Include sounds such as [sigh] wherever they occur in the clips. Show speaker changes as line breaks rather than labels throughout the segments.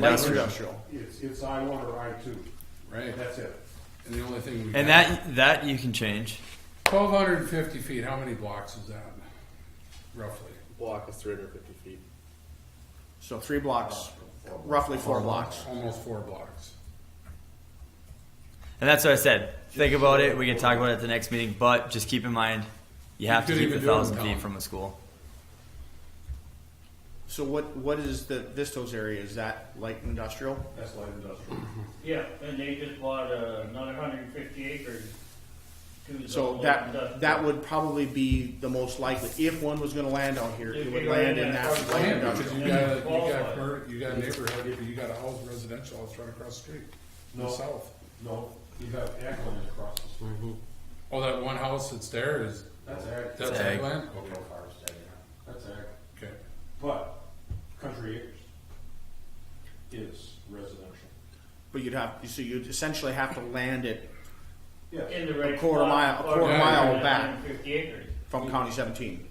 industrial.
It's, it's I one or I two,
Right,
that's it.
and the only thing we.
And that that you can change.
Twelve hundred and fifty feet, how many blocks is that roughly?
block is 350 feet.
So three blocks, roughly four blocks.
Almost four blocks.
And that's what I said. Think about it. We can talk about it at the next meeting, but just keep in mind you have
You
to
couldn't
keep a
even do it in
thousand feet
town.
from a school.
So what, what is the Vistos area? Is that light industrial?
That's light industrial.
Yeah, and they just bought uh, another hundred and fifty acres. to the
So
whole
that,
industrial.
that would probably be the most likely, if one was gonna land out here, it would land in that light
Land,
industrial.
because you got, a- you got, mer- you got a neighborhood, you got a house residential house right across the street, to the
No.
south.
No, you have ag land across the street.
Oh, that one house that's there is,
That's ag.
that's
ag.
ag land?
Okay, forest ag, yeah. That's ag.
Okay.
But country acres is residential.
But you'd have, so you'd essentially have to land it
Yes,
In the right.
quarter
spot,
mile- a quarter
or
mile
150
back.
acres.
from County seventeen.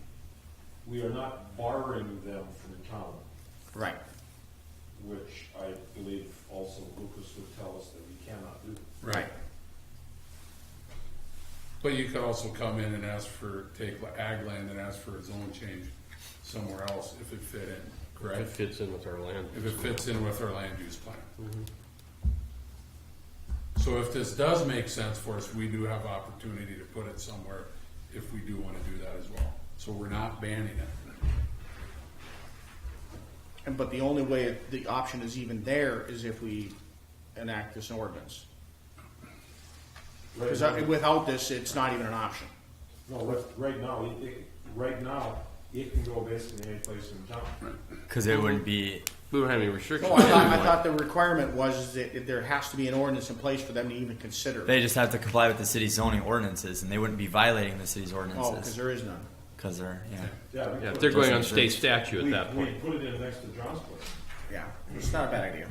we are not borrowing them from town,
Right.
which I believe also Lucas would tell us that we cannot do.
Right.
But you could also come in and ask for, take la- ag land and ask for a zone change somewhere else if it fit in,
It
correct?
fits in with our land.
If it fits in with our land use plan. So if this does make sense for us, we do have opportunity to put it somewhere if we do wanna do that as well. So we're not banning it.
And, but the only way the option is even there is if we enact this ordinance. Cause that- without this, it's not even an option.
No, right, right now, it- it, right now, it can go basically any place in town.
Because it wouldn't be.
We don't have any restrictions.
No, Oh, I thought, I thought the requirement was that there has to be an ordinance in place for them to even consider. it.
They just have to comply with the city's zoning ordinances, and they wouldn't be violating the city's
Oh, because
ordinances
there is none.
because they're yeah.
Yeah, we
Yeah, if
put-
they're going on state statute
we-
at that point.
We put it in next to John's place.
Yeah, it's not a bad idea.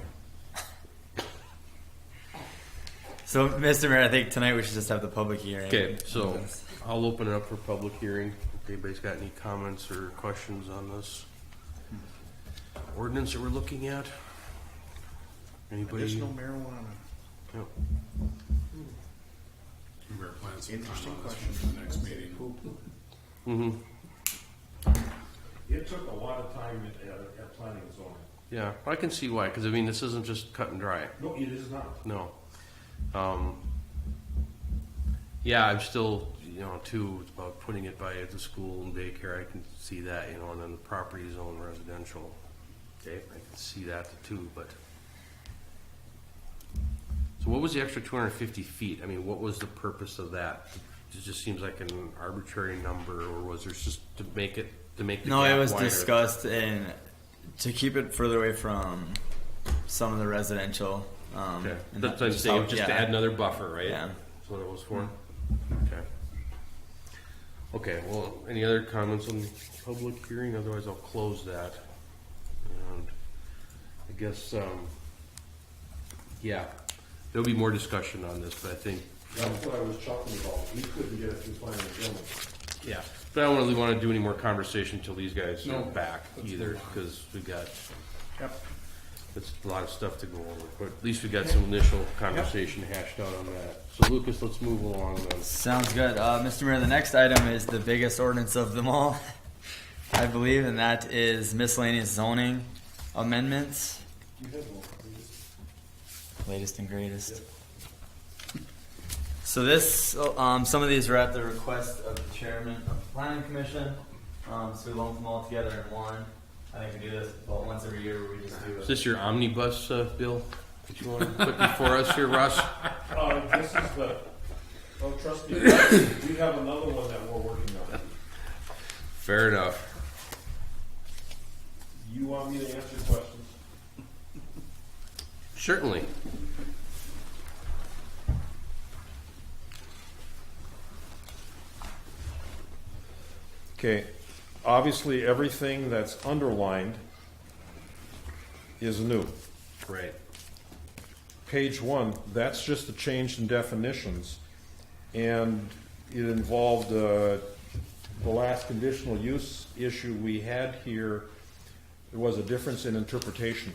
So, Mr. Mayor, I think tonight we should just have the public hearing.
Okay, so I'll open it up for public hearing. If anybody's got any comments or questions on this ordinance that we're looking at? Anybody?
Medicinal marijuana.
No.
We were planning some time
Interesting
on this one for the next meeting.
It took a lot of time at, at, at planning and zoning.
Yeah, I can see why, because I mean, this isn't just cut and dry.
No, it is not.
No. Um, yeah, I'm still, you know, too, it's about putting it by the school and daycare, I can see that, you know, and then the property zone residential. Okay, I can see that too, but. So what was the extra two hundred and fifty feet? I mean, what was the purpose of that? It just seems like an arbitrary number, or was there just to make it, to make the
No, it
gap
was
wider?
discussed and to keep it further away from some of the residential. Um,
Okay,
and
that's
that-
what I'm saying,
how-
just to
yeah.
add another buffer, right?
Yeah. Mm-hmm.
That's what it was for? Okay. Okay, well, any other comments on public hearing, otherwise I'll close that. And I guess, um, yeah, there'll be more discussion on this, but I think, um,
That's what I was chuckling about. We couldn't get it through planning and zoning.
yeah. But I don't really wanna do any more conversation till these guys
No.
are back
Let's
either,
move on.
cause we got,
Yep.
that's a lot of stuff to go over, but at least we got some initial conversation hashed out on that. So Lucas, let's move along then.
Sounds good. Uh, Mr. Mayor, the next item is the biggest ordinance of them all, [laughs] I believe, and that is miscellaneous zoning amendments. Latest and greatest. So this, um, some of these were at the request of the chairman of the planning commission, um, so we lumped them all together in one. I think we do this about once every year, where we just do
Is
it.
this your omnibus uh, bill that you want to put before us here, Russ?
Uh, this is the, oh, trust me, [coughs] we have another one that we're working on.
Fair enough.
You want me to answer questions?
Certainly.
Okay, obviously, everything that's underlined is new.
Right.
Page one, that's just a change in definitions, and it involved, uh, the last conditional use issue we had here, there was a difference in interpretation.